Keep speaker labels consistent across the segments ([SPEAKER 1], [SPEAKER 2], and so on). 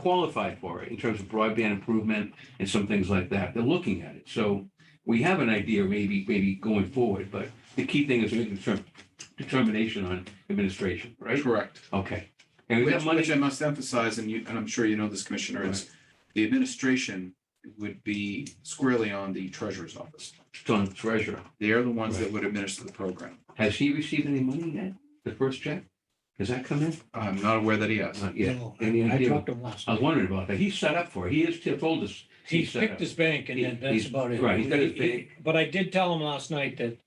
[SPEAKER 1] qualified for it in terms of broadband improvement and some things like that. They're looking at it. So we have an idea maybe, maybe going forward, but the key thing is making determ- determination on administration, right?
[SPEAKER 2] Correct.
[SPEAKER 1] Okay. And we
[SPEAKER 2] Which,
[SPEAKER 1] have money.
[SPEAKER 2] which I must emphasize, and you, and I'm sure you know this, Commissioner, is the administration would be squarely on the treasurer's office.
[SPEAKER 1] on treasurer.
[SPEAKER 2] They are the ones that would administer the program.
[SPEAKER 1] Has he received any money yet? The first check? Has that come in?
[SPEAKER 2] I'm not aware that he has.
[SPEAKER 1] Not yet.
[SPEAKER 3] No,
[SPEAKER 1] Any
[SPEAKER 3] I I
[SPEAKER 1] idea?
[SPEAKER 3] talked to him last
[SPEAKER 1] I was
[SPEAKER 3] night.
[SPEAKER 1] wondering about that. He's set up for it. He is, Oh, he told us.
[SPEAKER 3] He
[SPEAKER 1] he's set up.
[SPEAKER 3] picked his bank and then
[SPEAKER 1] He-
[SPEAKER 3] that's
[SPEAKER 1] he's-
[SPEAKER 3] about it.
[SPEAKER 1] right, he's got his
[SPEAKER 3] He- he- But I did tell him last night that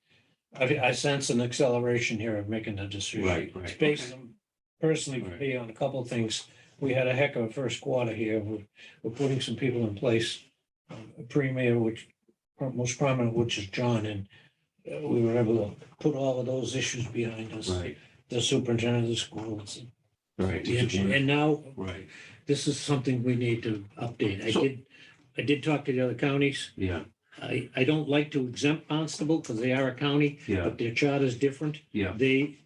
[SPEAKER 3] I, I sense an acceleration here of making the decision.
[SPEAKER 1] Right, right.
[SPEAKER 3] It's based on- personally, for
[SPEAKER 1] Right.
[SPEAKER 3] me, on a couple of things. We had a heck of a first quarter here. We're, we're putting some people in place. Um, a Premier, which, most prominent, which is John, and uh, we were able to put all of those issues behind us.
[SPEAKER 1] Right,
[SPEAKER 3] The superintendent of the schools,
[SPEAKER 1] right.
[SPEAKER 3] the engineer, and now
[SPEAKER 1] Right,
[SPEAKER 3] this is something we need to update. I
[SPEAKER 1] So-
[SPEAKER 3] did, I did talk to the other counties.
[SPEAKER 1] yeah,
[SPEAKER 3] I, I don't like to exempt Barnstable because they are a county,
[SPEAKER 1] yeah,
[SPEAKER 3] but their charter's different.
[SPEAKER 1] yeah,
[SPEAKER 3] They,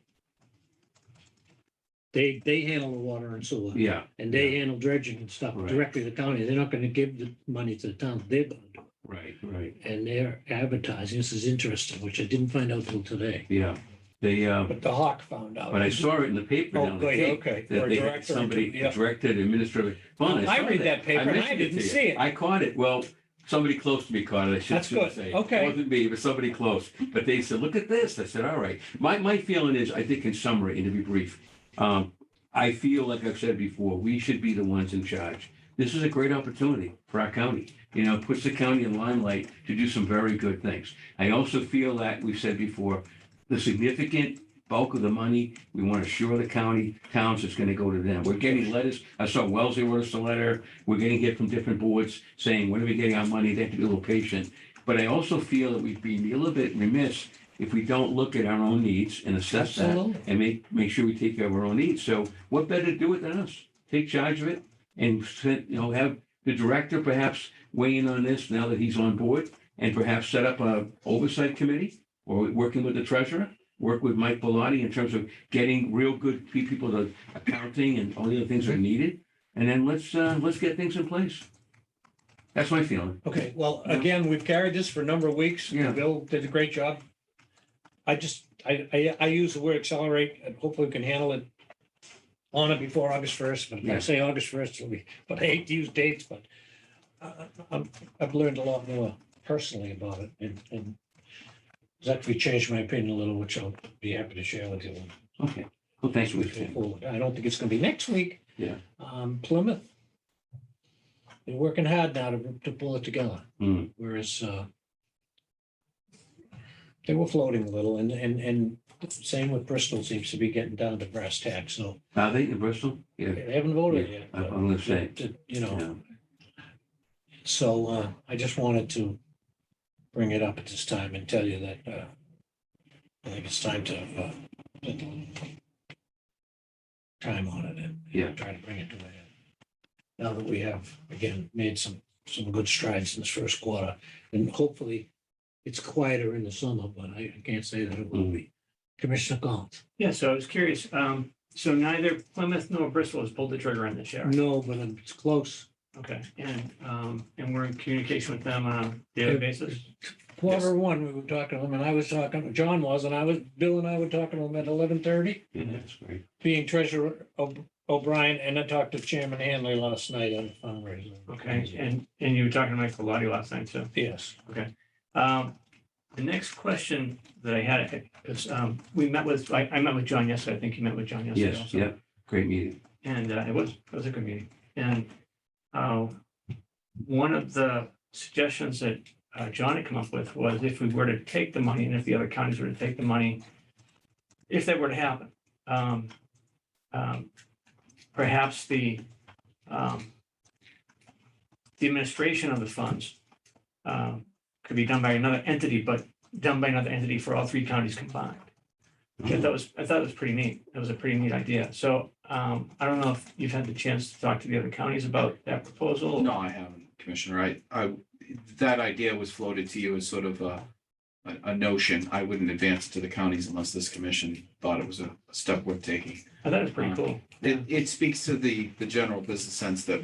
[SPEAKER 3] they, they handle the water and sewer
[SPEAKER 1] yeah,
[SPEAKER 3] and they handle dredging and stuff
[SPEAKER 1] Right.
[SPEAKER 3] directly to the county. They're not going to give the money to the town. They're going to do
[SPEAKER 1] right, right,
[SPEAKER 3] it. And they're advertising. This is interesting, which I didn't find out till today.
[SPEAKER 1] yeah. They, uh,
[SPEAKER 4] But the Hawk found out.
[SPEAKER 1] but I saw it in the paper
[SPEAKER 4] Oh,
[SPEAKER 1] down the
[SPEAKER 4] good,
[SPEAKER 1] Cape
[SPEAKER 4] okay.
[SPEAKER 1] that
[SPEAKER 4] Or
[SPEAKER 1] they had
[SPEAKER 4] director or
[SPEAKER 1] somebody
[SPEAKER 4] two, yeah.
[SPEAKER 1] directed administrative fund.
[SPEAKER 4] I
[SPEAKER 1] saw
[SPEAKER 4] read that paper and I
[SPEAKER 1] mentioned
[SPEAKER 4] didn't
[SPEAKER 1] to you.
[SPEAKER 4] see it.
[SPEAKER 1] I caught it. Well, somebody close to me caught it. I should
[SPEAKER 4] That's good.
[SPEAKER 1] shouldn't say.
[SPEAKER 4] Okay.
[SPEAKER 1] It wasn't me, but somebody close. But they said, look at this. I said, all right. My, my feeling is, I think in summary, and to be brief, um, I feel, like I've said before, we should be the ones in charge. This is a great opportunity for our county. You know, puts the county in limelight to do some very good things. I also feel that, we've said before, the significant bulk of the money, we want to assure the county, towns, it's going to go to them. We're getting letters. I saw Wellesley wrote us a letter. We're getting it from different boards saying, when are we getting our money? They have to be a little patient. But I also feel that we'd be a little bit remiss if we don't look at our own needs and assess that
[SPEAKER 3] Absolutely.
[SPEAKER 1] and make, make sure we take care of our own needs. So what better to do it than us? Take charge of it and send, you know, have the director perhaps weigh in on this now that he's on board and perhaps set up a oversight committee or working with the treasurer, work with Mike Bellotti in terms of getting real good pe- people to accounting and all the other things that are needed. And then let's, uh, let's get things in place. That's my feeling.
[SPEAKER 3] Okay, well, again, we've carried this for a number of weeks.
[SPEAKER 1] Yeah.
[SPEAKER 3] Bill did a great job. I just, I, I, I use the word accelerate and hopefully we can handle it on it before August first, but if
[SPEAKER 1] Yeah.
[SPEAKER 3] I say August first, it'll be, but I hate to use dates, but I, I'm, I've learned a lot more personally about it and, and it's actually changed my opinion a little, which I'll be happy to share with you.
[SPEAKER 1] Okay. Well, thanks
[SPEAKER 3] as
[SPEAKER 1] for
[SPEAKER 3] we go
[SPEAKER 1] listening.
[SPEAKER 3] forward. I don't think it's gonna be next week.
[SPEAKER 1] Yeah.
[SPEAKER 3] Um, Plymouth. They're working hard now to, to pull it together
[SPEAKER 1] Hmm.
[SPEAKER 3] whereas uh, they were floating a little, and, and, and same with Bristol seems to be getting down to brass tacks, so
[SPEAKER 1] Are they in Bristol? Yeah,
[SPEAKER 3] they haven't voted yet.
[SPEAKER 1] I-
[SPEAKER 3] but-
[SPEAKER 1] I'm gonna say.
[SPEAKER 3] You know,
[SPEAKER 1] yeah.
[SPEAKER 3] so uh, I just wanted to bring it up at this time and tell you that uh, I think it's time to uh, put time on it and
[SPEAKER 1] Yeah.
[SPEAKER 3] try to bring it to an end. Now that we have, again, made some, some good strides in this first quarter, and hopefully it's quieter in the summer, but I I can't say that it will be. Commissioner Galt?
[SPEAKER 5] Yeah, so I was curious. Um, so neither Plymouth nor Bristol has pulled the trigger on this yet. right?
[SPEAKER 3] No, but it's close.
[SPEAKER 1] Mm-hmm.
[SPEAKER 5] Okay, and, um, and we're in communication with them on a daily basis?
[SPEAKER 3] Quarter one, we were talking to them, and I was talking, John was, and I was, Bill and I were talking to them at eleven thirty.
[SPEAKER 1] Yeah, that's great.
[SPEAKER 3] being treasurer O- O'Brien, and I talked to Chairman Hanley last night on the fundraiser.
[SPEAKER 5] Okay, and, and you were talking to Mike Bellotti last night, so.
[SPEAKER 3] Yes,
[SPEAKER 5] Um, the next question that I had is, um, we met with, I, I met with John yesterday. I think you met with John yesterday
[SPEAKER 1] Yes,
[SPEAKER 5] also.
[SPEAKER 1] yeah, great meeting.
[SPEAKER 5] And uh, it was, it was a good meeting. And uh, one of the suggestions that uh, John had come up with was if we were to take the money and if the other counties were to take the money, if that were to happen, um, um, perhaps the um, the administration of the funds um, could be done by another entity, but done by another entity for all three counties combined. I thought was, I thought it was pretty neat. That was a pretty neat idea. So um, I don't know if you've had the chance to talk to the other counties about that proposal.
[SPEAKER 2] No, I haven't, Commissioner. I, I, that idea was floated to you as sort of a, a, a notion. I wouldn't advance it to the counties unless this commission thought it was a step worth taking.
[SPEAKER 5] I thought it was pretty cool.
[SPEAKER 2] It, it speaks to the, the general business sense that